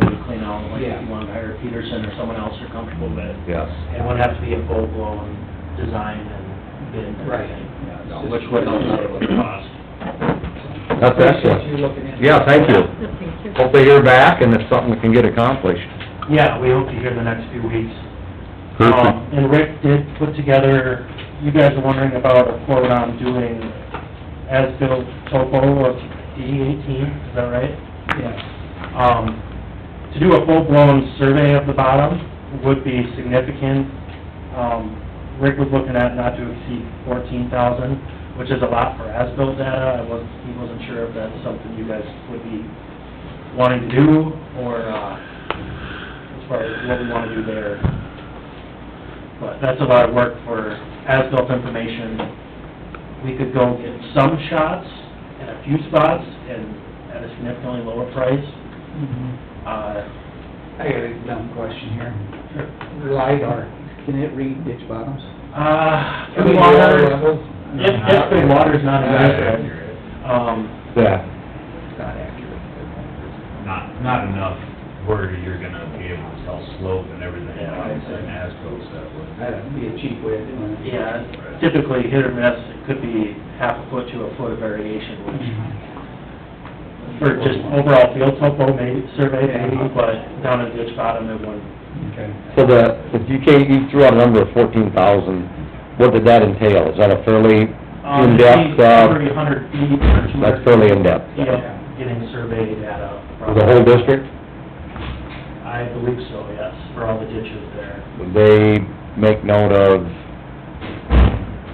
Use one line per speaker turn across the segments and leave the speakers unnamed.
now, like if
Yeah.
you wanted to hire Peterson or someone else you're comfortable with.
Yes.
It would have to be a full-blown design and bid and
Right.
everything.
Yeah,
no,
it's
which
just-
would
Don't know what it costs.
That's excellent.
You're looking into.
Yeah, thank you.
Thank you.
Hope they hear back and it's something that can get accomplished.
Yeah, we hope to hear the next few weeks.
Perfect.
Um, And Rick did put together, you guys are wondering about a quote on doing as-built topo of D eighteen, is that right?
Yeah,
Um, to do a full-blown survey of the bottom would be significant. Um, Rick was looking at not to exceed fourteen thousand, which is a lot for as-built data. I was, he wasn't sure if that's something you guys would be wanting to do, or, uh, as far as what we wanna do there. But that's a lot of work for as-built information we could go get some shots in a few spots and at a significantly lower price. Uh,
Mm-hmm. I got a dumb question here. LiDAR, can it read ditch bottoms?
Uh,
Can we
the
do all
water,
levels?
if, if the water's not
Not
available,
accurate.
um,
Yeah.
It's not accurate.
not, not enough where you're gonna be able to tell slope and everything,
Yeah, I
like,
see.
and as goes that way.
That'd be a cheap way of doing it.
yeah, typically hit or miss, it could be half a foot to a foot of variation, which
Mm-hmm.
for just overall field topo maybe, survey maybe, but down in ditch bottom, it wouldn't.
Okay.
So the, if you came, you threw out a number of fourteen thousand, what did that entail? Is that a fairly
Um,
in-depth, uh,
Thirty, hundred feet or two hundred.
that's fairly in-depth?
Yep, getting survey data.
For
from-
the whole district?
I believe so, yes, for all the ditches there.
Would they make note of,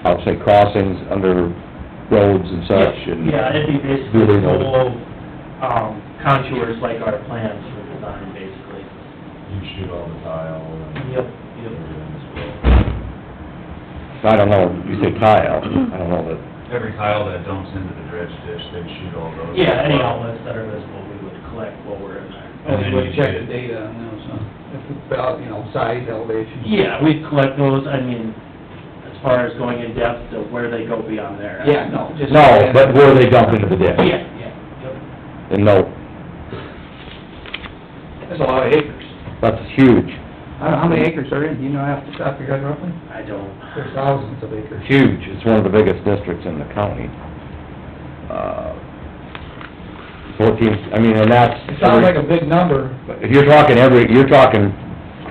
I'll say crossings under roads and such and?
Yeah, it'd be
Do
basically
they
the
know?
whole, um, contours like our plans for design, basically.
You shoot all the tile and.
Yep,
everything as well.
I don't know, you say tile, I don't know that.
Every tile that dumps into the dredge ditch, they shoot all those.
Yeah, any outlets that are visible, we would collect while we're in there.
And
then
we would
you
Oh, check
did.
the data on those, huh? If it's about, you know, size, elevation.
Yeah, we collect those, I mean, as far as going in depth to where they go beyond there.
Yeah, no, just.
No, but where they dump into the ditch?
Yeah, yeah, yep.
And no,
That's a lot of acres.
that's huge,
I don't know, how many acres are in, do you know off the top of your head roughly?
I don't.
There's thousands of acres.
huge, it's one of the biggest districts in the county. Uh, Fourteen, I mean, and that's.
It sounds like a big number.
If you're talking every, you're talking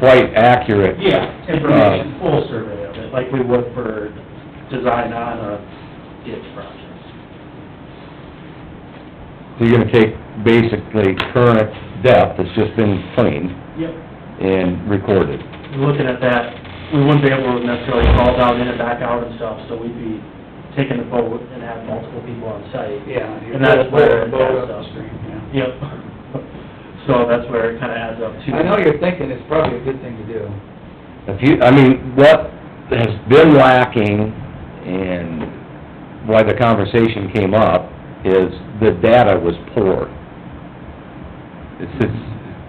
quite accurate.
Yeah, information, full survey of it, like we would for design on a ditch project.
So you're gonna take basically current depth that's just been cleaned
Yep.
and recorded.
We're looking at that, we wouldn't be able to necessarily call down in and back out and stuff, so we'd be taking the boat and have multiple people on site.
Yeah.
And that's where it adds
Boat
up.
upstream, yeah.
Yep. So that's where it kinda adds up to.
I know you're thinking it's probably a good thing to do.
If you, I mean, what has been lacking and why the conversation came up is the data was poor. It's, it's,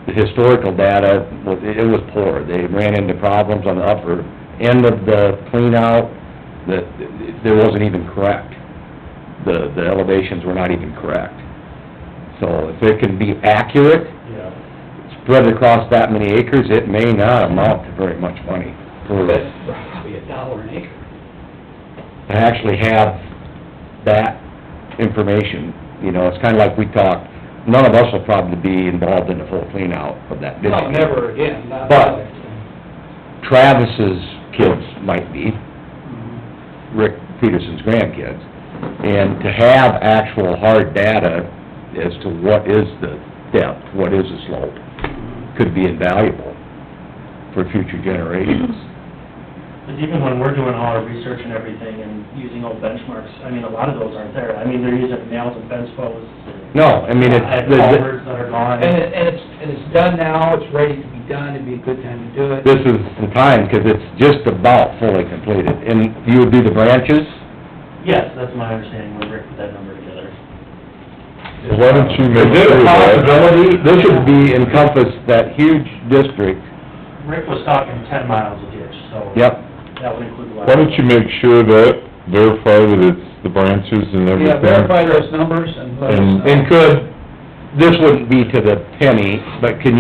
the historical data, was- it was poor. They ran into problems on the upper end of the cleanout, that there wasn't even correct. The, the elevations were not even correct. So if it can be accurate,
Yeah.
spread across that many acres, it may not amount to very much money for
But
this,
it's probably a dollar an acre.
to actually have that information, you know, it's kinda like we talked, none of us will probably be involved in a full cleanout of that ditch.
Well, never again, not.
But- Travis's kids might be, Rick Peterson's grandkids, and to have actual hard data as to what is the depth, what is the slope, could be invaluable for future generations.
But even when we're doing all our research and everything and using old benchmarks, I mean, a lot of those aren't there. I mean, they're using nails and fence posts and.
No, I mean,
I
it's,
have
the-
culverts that are gone.
And it, and it's, and it's done now, it's ready to be done, it'd be a good time to do it.
this is the time, 'cause it's just about fully completed, and you would do the branches?
Yes, that's my understanding, when Rick put that number together.
Why don't you make... Is there a possibility, this should be encompass that huge district,
Rick was talking ten miles a ditch, so.
yep,
That would include the.
Why don't you make sure that, verify that it's the branches and everything?
Yeah, verify those numbers and let us know.
and could, this wouldn't be to the penny, but can